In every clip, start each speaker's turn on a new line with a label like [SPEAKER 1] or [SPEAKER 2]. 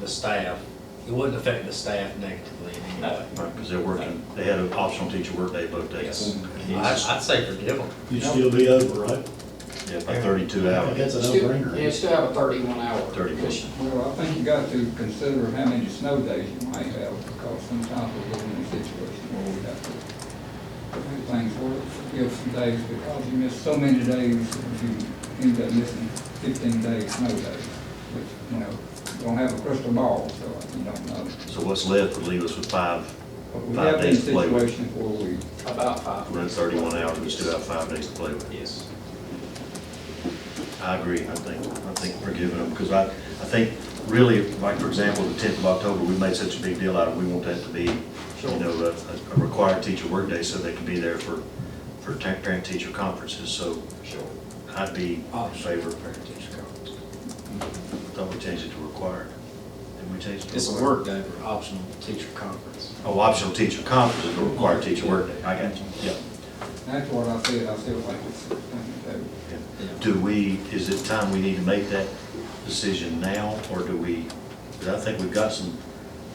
[SPEAKER 1] the staff, it wouldn't affect the staff negatively in any way.
[SPEAKER 2] Because they're working, they had an optional teacher workday both
[SPEAKER 1] Yes.
[SPEAKER 2] days.
[SPEAKER 1] I'd, I'd say forgive them.
[SPEAKER 3] You'd still be over, right?
[SPEAKER 2] Yeah, by thirty-two hours.
[SPEAKER 3] That's a
[SPEAKER 4] Still-
[SPEAKER 3] no-brainer.
[SPEAKER 4] Yeah, you still have a thirty-one hour.
[SPEAKER 2] 31.
[SPEAKER 4] commission.
[SPEAKER 5] Well, I think you got to consider how many snow days you might have, because sometimes we live in a situation where we have to do things work, give some days, because you miss so many days, if you end up missing fifteen days, snow days, which, you know, you don't have a crystal ball, so you don't know.
[SPEAKER 2] So what's left would leave us with five,
[SPEAKER 5] But we
[SPEAKER 2] Five
[SPEAKER 5] have
[SPEAKER 2] days
[SPEAKER 5] these
[SPEAKER 2] to play with.
[SPEAKER 5] situations where we,
[SPEAKER 4] About five.
[SPEAKER 2] run thirty-one hours, we still have five days to play with.
[SPEAKER 4] Yes.
[SPEAKER 2] I agree, I think, I think forgiving them, because I, I think really, like for example, the tenth of October, we made such a big deal out of, it, we want that to be, you know, a, a required teacher workday so they can be there for, for parent-teacher conferences, so
[SPEAKER 4] Sure.
[SPEAKER 2] I'd be in favor,
[SPEAKER 1] Fair teacher conference.
[SPEAKER 2] I thought we changed it to required. Did we change it to
[SPEAKER 1] It's a
[SPEAKER 2] required?
[SPEAKER 1] work day for optional teacher conference.
[SPEAKER 2] Oh, optional teacher conference is a required teacher workday, I got you, yeah.
[SPEAKER 5] that's what I said, I said like it's uh, sixteen days.
[SPEAKER 2] yeah. Do we, is it time we need to make that decision now, or do we, because I think we've got some,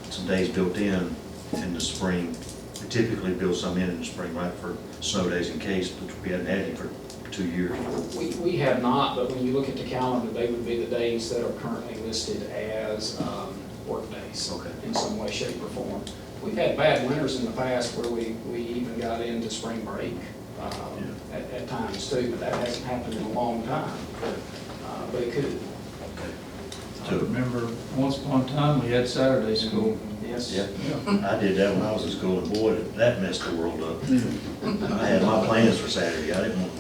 [SPEAKER 2] some days built in in the spring. We typically build some in in the spring, right, for snow days in case, but we haven't had any for two years.
[SPEAKER 4] We, we have not, but when you look at the calendar, they would be the days that are currently listed as um, workdays.
[SPEAKER 2] Okay.
[SPEAKER 4] In some way, shape, or form. We've had bad winters in the past where we, we even got into spring break um, at, at times too, but that hasn't happened in a long time. Uh, But it could,
[SPEAKER 6] I remember once upon a time, we had Saturday school.
[SPEAKER 4] yes.
[SPEAKER 2] Yeah, I did that when I was in school, and boy, did that messed the world up. I had my plans for Saturday, I didn't want.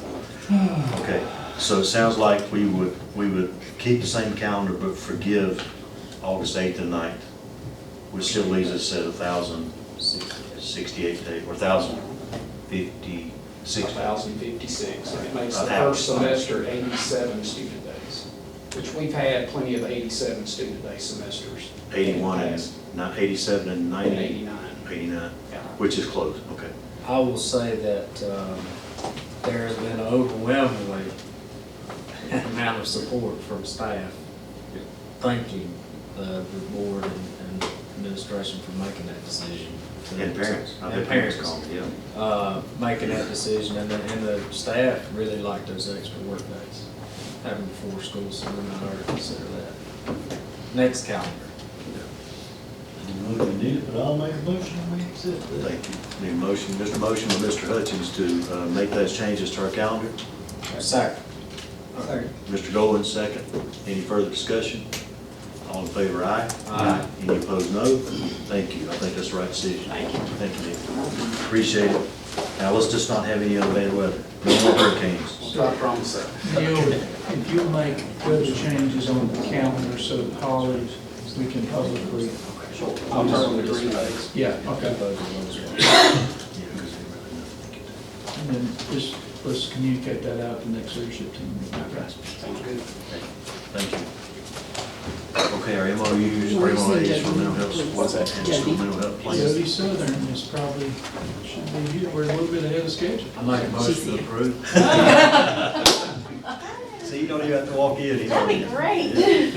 [SPEAKER 2] Okay, so it sounds like we would, we would keep the same calendar, but forgive August eighth and 9th, which still leaves us at a thousand sixty-eight days, or thousand fifty-six.
[SPEAKER 4] 1,056, and it makes
[SPEAKER 2] A
[SPEAKER 4] the
[SPEAKER 2] thousand.
[SPEAKER 4] first semester 87 student days, which we've had plenty of 87 student day semesters. in the
[SPEAKER 2] Eighty-one and,
[SPEAKER 4] past,
[SPEAKER 2] not, eighty-seven and
[SPEAKER 4] And
[SPEAKER 2] ninety?
[SPEAKER 4] 89,
[SPEAKER 2] Eighty-nine,
[SPEAKER 4] yeah.
[SPEAKER 2] which is close, okay.
[SPEAKER 1] I will say that um, there has been overwhelmingly amount of support from staff thanking the the board and and administration for making that decision. to-
[SPEAKER 2] And parents, I've had
[SPEAKER 1] And
[SPEAKER 2] parents
[SPEAKER 1] parents,
[SPEAKER 2] call me, yeah.
[SPEAKER 1] uh, making that decision, and the, and the staff really like those extra work days, having four schools, so we're not hard to consider that. Next calendar.
[SPEAKER 3] Well, if you need it, but I'll make a motion, we accept that.
[SPEAKER 2] Thank you. Need a motion, Mr. Motion by Mr. Hutchins to uh, make those changes to our calendar.
[SPEAKER 1] Second.
[SPEAKER 5] Second.
[SPEAKER 2] Mr. Dolan, second. Any further discussion? All in favor, aye?
[SPEAKER 1] Aye.
[SPEAKER 2] Any opposed, no? Thank you. I think that's the right decision. Thank you. Thank you, Nick. Appreciate it. Now, let's just not have any other bad weather. No more hurricanes.
[SPEAKER 4] So I promise that.
[SPEAKER 6] Neil, if you make further changes on the calendar so the holidays, we can publicly.
[SPEAKER 4] I'll turn the green days.
[SPEAKER 6] Yeah, okay.
[SPEAKER 1] Those are those.
[SPEAKER 2] Yeah, 'cause they really nothing can do.
[SPEAKER 6] And then just, let's communicate that out to next leadership team.
[SPEAKER 4] Sounds good.
[SPEAKER 2] Thank you. Okay, our MOUs, our MOAs for mental health.
[SPEAKER 7] What's that?
[SPEAKER 2] And school mental health plans.
[SPEAKER 6] Jody Southern is probably, should be, here. we're a little bit ahead of schedule.
[SPEAKER 1] I make a motion to approve.
[SPEAKER 2] See, you don't even have to walk in. He's
[SPEAKER 7] That'd be
[SPEAKER 2] already in.
[SPEAKER 7] great.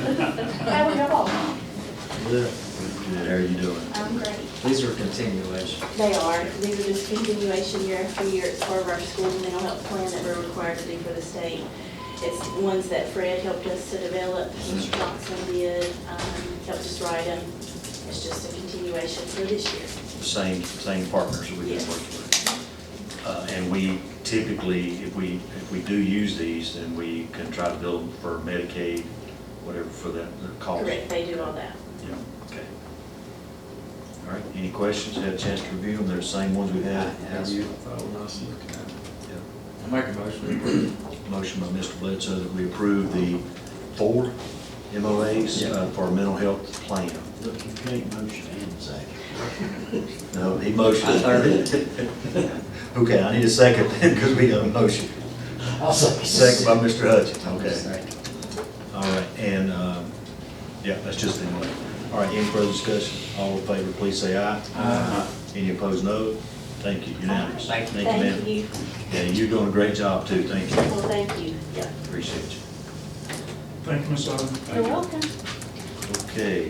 [SPEAKER 7] How we all?
[SPEAKER 1] Yeah.
[SPEAKER 2] Good, How are you doing?
[SPEAKER 7] I'm great.
[SPEAKER 1] These are continuation.
[SPEAKER 7] They are, these are just continuation year after year, it's part of our school mental health plan that we're required to do for the state. It's ones that Fred helped us to develop, Mr. Johnson did, um, helped us write them. It's just a continuation for this year.
[SPEAKER 2] same, same partners that we've been working with. Uh, And we typically, if we, if we do use these, then we can try to bill them for Medicaid, whatever for that, the cost.
[SPEAKER 7] Correct, they do all that.
[SPEAKER 2] Yeah, okay. All right, any questions? Had a chance to review them, they're the same ones we had. Have you? Yeah.
[SPEAKER 1] I make a motion to approve.
[SPEAKER 2] Motion by Mr. Bledsoe that we approve the four MOAs uh, for our mental health plan.
[SPEAKER 3] Look, you can't motion and second.
[SPEAKER 2] No, he motioned.
[SPEAKER 1] I heard
[SPEAKER 2] Okay, I need a second because we got a motion.
[SPEAKER 1] I'll second.
[SPEAKER 2] Second by Mr. Hutchins, okay. All right, and, um, yeah, that's just the one. All right, any further discussion? All in favor, please say aye. Aye. Any opposed, no? Thank you, unanimous.
[SPEAKER 7] Thank you.
[SPEAKER 2] ma'am.
[SPEAKER 7] Thank you.
[SPEAKER 2] Yeah, you're doing a great job too, thank you.
[SPEAKER 7] Well, thank you, yeah.
[SPEAKER 2] Appreciate you.
[SPEAKER 6] Thank you, Ms. Southern.
[SPEAKER 7] You're welcome.
[SPEAKER 2] Okay.